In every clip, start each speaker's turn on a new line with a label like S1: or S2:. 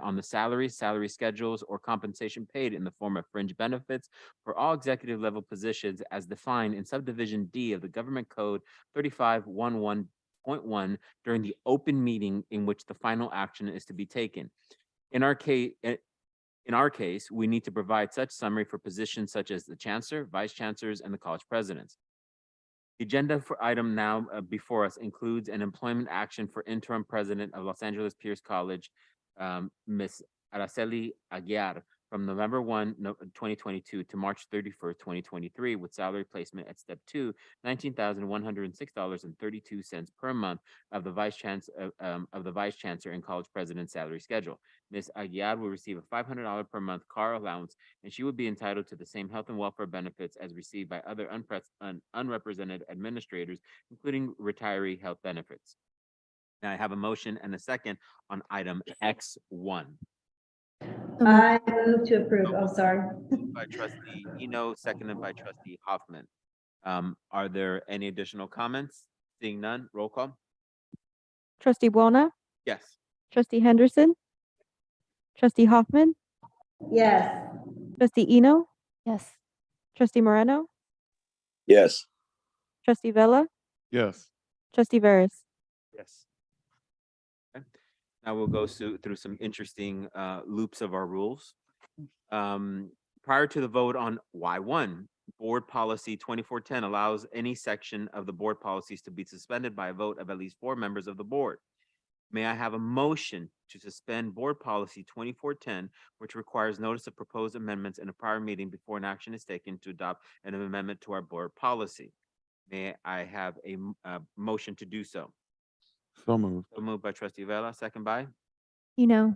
S1: on the salary, salary schedules, or compensation paid in the form of fringe benefits for all executive level positions as defined in subdivision D of the Government Code thirty-five one one point one during the open meeting in which the final action is to be taken. In our case, eh, in our case, we need to provide such summary for positions such as the chancellor, vice chancellors, and the college presidents. The agenda for item now uh, before us includes an employment action for interim president of Los Angeles Pierce College, um, Ms. Araceli Aguiar, from November 1, no- 2022 to March thirty-first, twenty twenty-three, with salary placement at step two, nineteen thousand one hundred and six dollars and thirty-two cents per month of the vice chancellor, of the vice chancellor and college president's salary schedule. Ms. Aguiar will receive a five hundred dollar per month car allowance, and she would be entitled to the same health and welfare benefits as received by other unpres- un- unrepresented administrators, including retiree health benefits. Now I have a motion and a second on item X one.
S2: So moved.
S3: Uh-huh.
S4: I move to approve. Oh, sorry.
S1: By trustee Eno, seconded by trustee Hoffman. Um, are there any additional comments? Seeing none, roll call?
S2: Trustee Buona,
S1: Yes.
S2: trustee Henderson, trustee Hoffman,
S4: Yes.
S2: trustee Eno. Yes. Trustee Moreno,
S5: yes,
S2: trustee Vella,
S6: yes,
S2: trustee Veras.
S1: Yes. Okay. Now we'll go through, through some interesting uh, loops of our rules. Um, Prior to the vote on Y one, Board Policy twenty-four ten allows any section of the board policies to be suspended by a vote of at least four members of the board. May I have a motion to suspend Board Policy twenty-four ten, which requires notice of proposed amendments in a prior meeting before an action is taken to adopt an amendment to our board policy? May I have a m- a motion to do so?
S6: so moved,
S1: So moved by trustee Vella, second by,
S2: You know.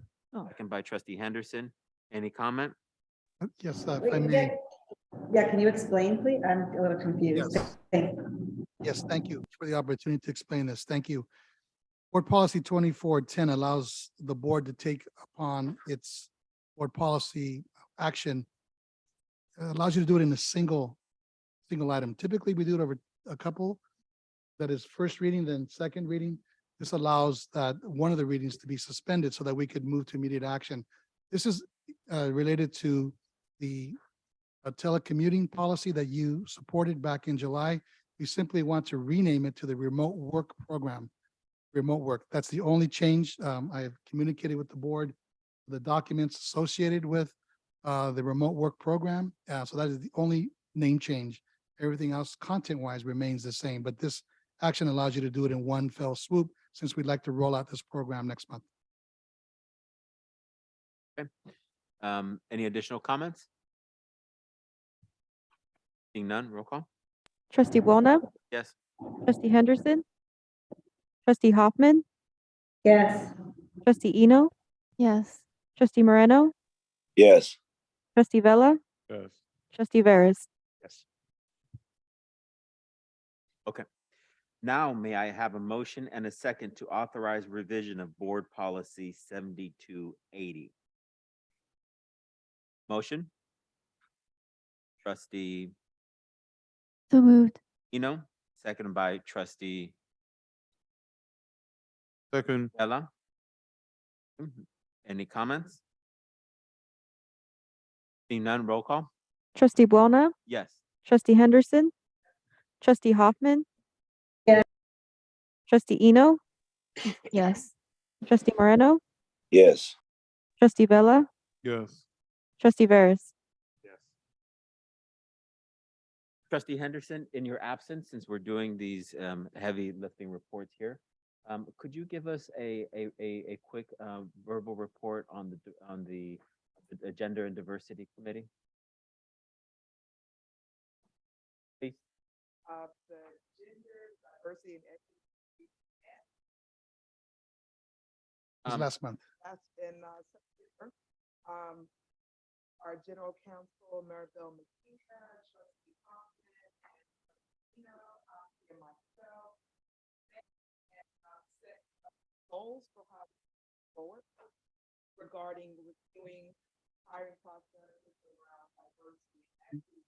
S1: second by trustee Henderson. Any comment?
S3: Uh, Yes, uh,
S4: Wait,
S3: if I may.
S4: yeah. Yeah, can you explain, please? I'm a little confused.
S3: Yes.
S4: Thank-
S3: Yes, thank you for the opportunity to explain this. Thank you. Board Policy twenty-four ten allows the board to take upon its board policy action. It Allows you to do it in a single, single item. Typically, we do it over a couple. That is first reading, then second reading. This allows that one of the readings to be suspended so that we could move to immediate action. This is uh, related to the uh, telecommuting policy that you supported back in July. We simply want to rename it to the remote work program. Remote work, that's the only change. Um, I have communicated with the board, the documents associated with uh, the remote work program. Uh, so that is the only name change. Everything else content wise remains the same, but this action allows you to do it in one fell swoop since we'd like to roll out this program next month.
S1: Um, any additional comments? Seeing none, roll call?
S2: Trustee Buona,
S1: Yes.
S2: trustee Henderson, trustee Hoffman,
S4: Yes.
S2: trustee Eno. Yes. Trustee Moreno,
S5: yes,
S2: trustee Vella,
S6: yes,
S2: trustee Veras.
S1: Now may I have a motion and a second to authorize revision of board policy seventy-two eighty? Motion? Trustee
S2: So moved.
S1: Eno, second by trustee
S6: second,
S1: Vella? Mhm. Any comments? Seeing none, roll call?
S2: Trustee Buona,
S1: Yes.
S2: trustee Henderson, trustee Hoffman.
S4: Yeah.
S2: Trustee Eno. Yes. Trustee Moreno,
S5: yes,
S2: trustee Vella,
S6: yes,
S2: trustee Veras.
S1: Trustee Henderson, in your absence, since we're doing these um, heavy lifting reports here, um, could you give us a, a, a, a quick uh, verbal report on the, d- on the the Gender and Diversity Committee? Please.
S7: of the Gender Diversity and Equity
S3: It was
S1: Um,
S3: last month.
S7: that's in uh, September. Um, Our general counsel, Maribel Messina, trustee Thompson, and you know, uh, and myself. and, uh, set Goals for how we move forward regarding reviewing hiring processes around diversity and equity um, uh, um,